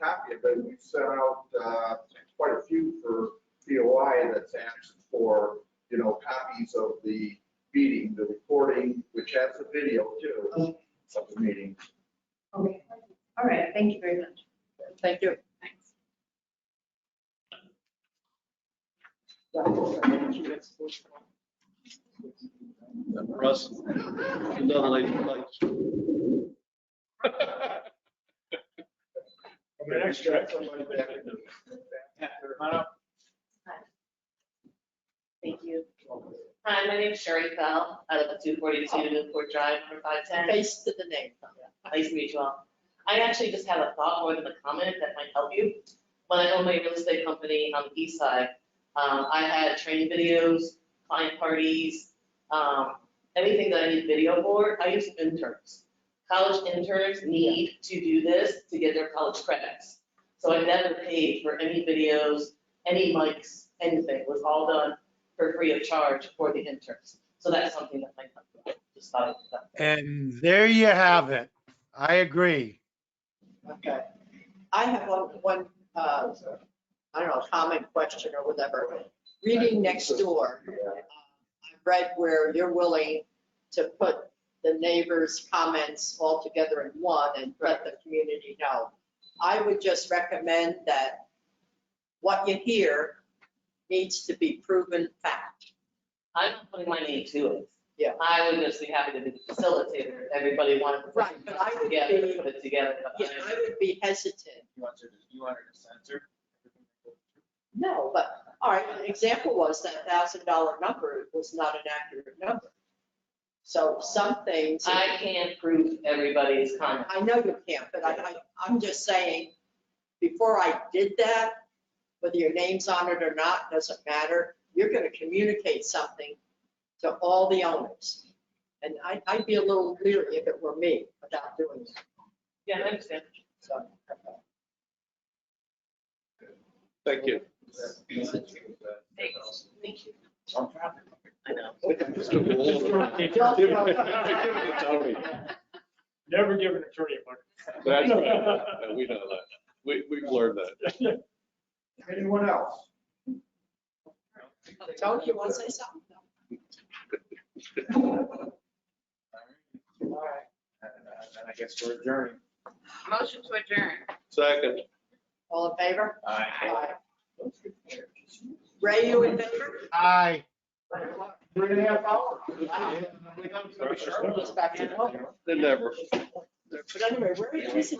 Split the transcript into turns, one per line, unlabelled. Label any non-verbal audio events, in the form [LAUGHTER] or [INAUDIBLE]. packet, but we've sent out uh, quite a few for BOI that's asked for, you know, copies of the meeting, the recording, which has the video too, of the meeting.
Okay, all right, thank you very much.
Thank you.
Thanks.
Russ, another lady who likes.
The next check.
Somebody back in the-
Thank you. Hi, my name's Sherry Bell, out of 242 Newport Drive, number 510.
Oh. Face to the name.
Nice to meet you all. I actually just have a thought more than a comment that might help you. When I owned my real estate company on the east side, um, I had training videos, client parties, um, anything that I need video for, I used interns. College interns need to do this to get their college credits. So I never paid for any videos, any mics, anything, it was all done for free of charge for the interns. So that's something that might help, you. just thought of that.
And there you have it. I agree.
Okay. I have one, one, uh, I don't know, comment, question or whatever. Reading next door.
[LAUGHS] Yeah.
I read where you're willing to put the neighbors' comments all together in one and let the community know. I would just recommend that what you hear needs to be proven fact.
I'm not putting my name to it.
Yeah.
I would just be happy to be the facilitator, if everybody wanted to. put
Right, but I would
together,
be-
Put it together, but
Yeah,
I-
I would be hesitant.
You wanted, you wanted to censor?
No, but, all right, an example was that thousand dollar number was not an accurate number. So some things.
I can't prove everybody's comment.
I know you can't, but I, I, I'm just saying, before I did that, whether your name's on it or not, doesn't matter. You're gonna communicate something to all the owners. And I, I'd be a little leery if it were me about doing that,
Yeah, I understand.
so. okay.
Thank you.
Thank you. I know.
Don't-
Never give an attorney
That's right. No, We know that. We, we've learned that.
a buck.
Anyone else?
Tony, you wanna say something?
All right. Then I guess we're adjourned.
Motion to adjourn.
Second,
All in favor?
Aye.
Ray, you in favor?
Aye.
Three and a half hours.
Wow. Let's back to normal.
they never.
But anyway, where is